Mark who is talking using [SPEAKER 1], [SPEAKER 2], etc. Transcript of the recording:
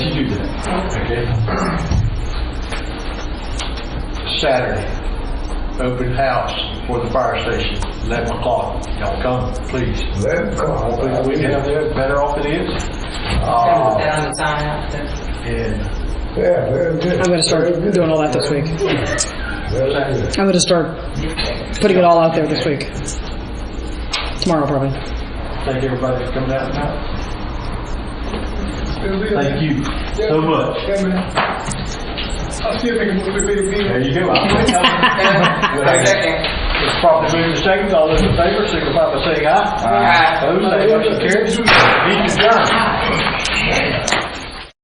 [SPEAKER 1] Okay. Saturday, open house for the fire station, 11 o'clock. Y'all come, please.
[SPEAKER 2] Eleven o'clock.
[SPEAKER 1] Hopefully we can have that better off it is.
[SPEAKER 3] Put
[SPEAKER 1] Uh,
[SPEAKER 3] that on the sign out there.
[SPEAKER 1] And
[SPEAKER 2] Yeah, very good.
[SPEAKER 4] I'm gonna start doing all that this week.
[SPEAKER 2] Very good.
[SPEAKER 4] I'm gonna start putting it all out there this week. Tomorrow, probably.
[SPEAKER 1] thank everybody for coming out tonight. Thank you so much.
[SPEAKER 2] I'll see if we can move it
[SPEAKER 1] There you go. I'll wait. I'll-
[SPEAKER 3] Second.
[SPEAKER 1] It's properly moved and seconded. All those in favor, signify by saying aye.
[SPEAKER 3] Aye.
[SPEAKER 1] Those, that motion carries. Meeting adjourned.